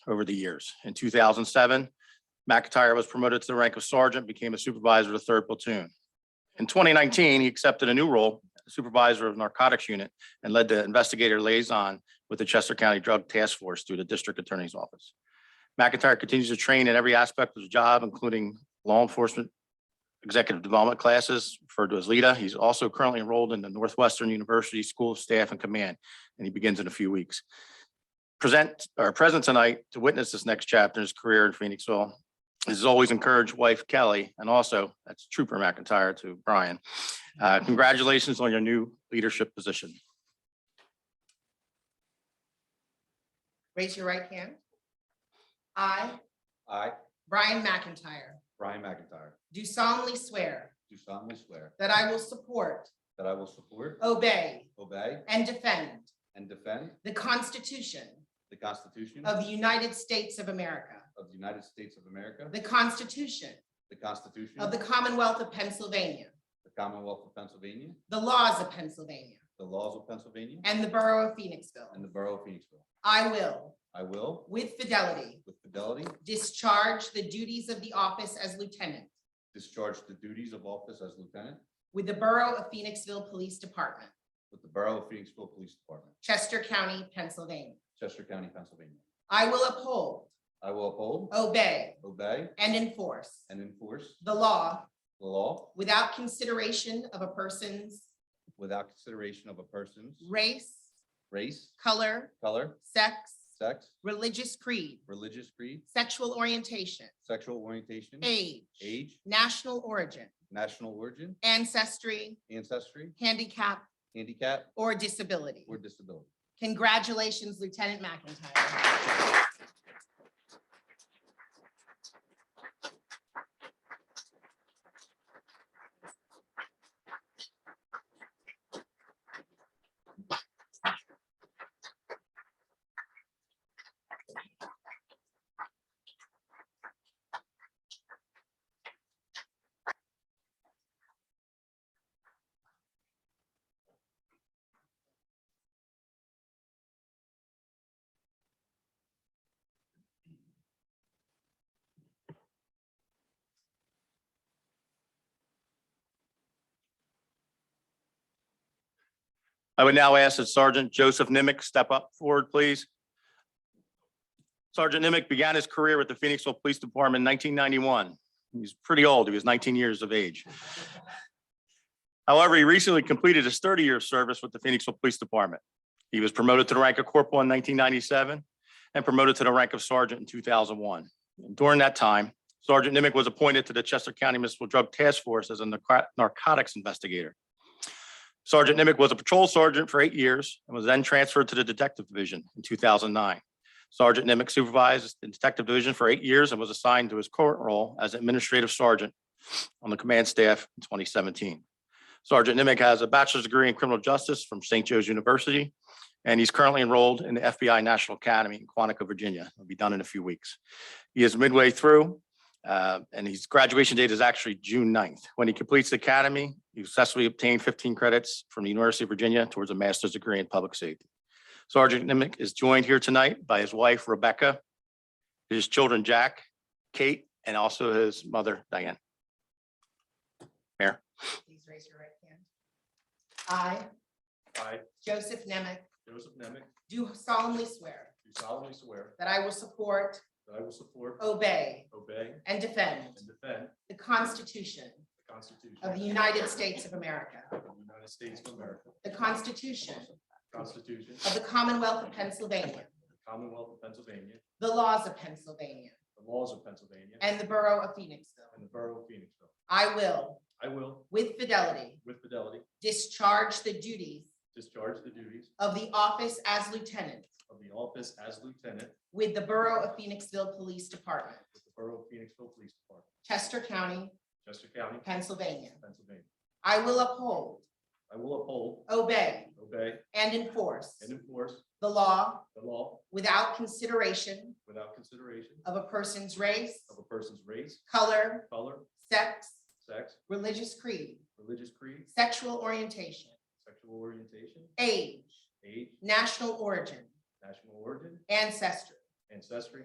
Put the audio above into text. over the years. In two thousand seven, McIntyre was promoted to the rank of sergeant, became a supervisor of the third platoon. In twenty nineteen, he accepted a new role, supervisor of narcotics unit, and led the investigator liaison with the Chester County Drug Task Force through the district attorney's office. McIntyre continues to train in every aspect of his job, including law enforcement executive development classes, referred to as LEDA. He's also currently enrolled in the Northwestern University School of Staff and Command, and he begins in a few weeks. Present, or present tonight to witness this next chapter in his career in Phoenixville is always encourage wife Kelly, and also that's Trooper McIntyre to Brian. Uh, Congratulations on your new leadership position. Raise your right hand. I, I, Brian McIntyre, Brian McIntyre, do solemnly swear do solemnly swear that I will support, that I will support, obey, obey, and defend and defend the Constitution the Constitution of the United States of America, of the United States of America, the Constitution the Constitution of the Commonwealth of Pennsylvania, the Commonwealth of Pennsylvania, the laws of Pennsylvania, the laws of Pennsylvania, and the Borough of and Phoenixville. the Borough of Phoenixville. I will, I will, with fidelity, with fidelity, discharge the duties of the office as lieutenant discharge the duties of office as lieutenant with the Borough of Phoenixville Police Department, with the Borough of Phoenixville Police Department, Chester County, Pennsylvania. Chester County, Pennsylvania. I will uphold, I will uphold, obey, obey, and enforce and enforce Oh. the law the law without consideration of a person's without consideration of a person's race, race, color, color, sex, sex, religious creed, religious creed, sexual orientation, sexual orientation, age, age, national origin, national origin, ancestry, ancestry, handicap, handicap, or disability. or disability. Congratulations, Lieutenant McIntyre. I would now ask that Sergeant Joseph Nimick step up forward, please. Sergeant Nimick began his career with the Phoenixville Police Department in 1991. He's pretty old. He was 19 years of age. However, he recently completed his 30-year service with the Phoenixville Police Department. He was promoted to the rank of corporal in 1997 and promoted to the rank of sergeant in 2001. During that time, Sergeant Nimick was appointed to the Chester County Municipal Drug Task Force as a narco- narcotics investigator. Sergeant Nimick was a patrol sergeant for eight years and was then transferred to the Detective Division in 2009. Sergeant Nimick supervised the Detective Division for eight years and was assigned to his current role as Administrative Sergeant on the command staff in 2017. Sergeant Nimick has a bachelor's degree in criminal justice from St. Joe's University, and he's currently enrolled in the FBI National Academy in Quantico, Virginia. It'll be done in a few weeks. He is midway through uh, and his graduation date is actually June 9th. When he completes the academy, he successfully obtained fifteen credits from the University of Virginia towards a master's degree in public safety. Sergeant Nimick is joined here tonight by his wife Rebecca, his children Jack, Kate, and also his mother Diane. Please raise your right hand. I, I, Joseph Nemec, Joseph Nemec, do solemnly swear do solemnly swear that I will support, that I will support, obey, obey, and Oh. defend and defend the Constitution the Constitution of of the United States of America, the United States of America, the Constitution the Constitution of of the Commonwealth of Pennsylvania, the Commonwealth of Pennsylvania, the laws of Pennsylvania, the laws of Pennsylvania, and and the Borough of Phoenixville. the Borough of Phoenixville. I will, I will, with fidelity, with fidelity, discharge the duties discharge the duties of the office as lieutenant of the office as lieutenant with the Borough of Phoenixville Police Department, with the Borough of Phoenixville Police Department, Chester County, Chester County, Pennsylvania. Pennsylvania. I will uphold, I will uphold, obey, obey, and enforce and enforce the law the law without consideration without consideration of a person's race, of a person's race, color, color, sex, sex, religious creed, religious creed, sexual orientation, sexual orientation, age, age, national origin, national origin, ancestry, ancestry,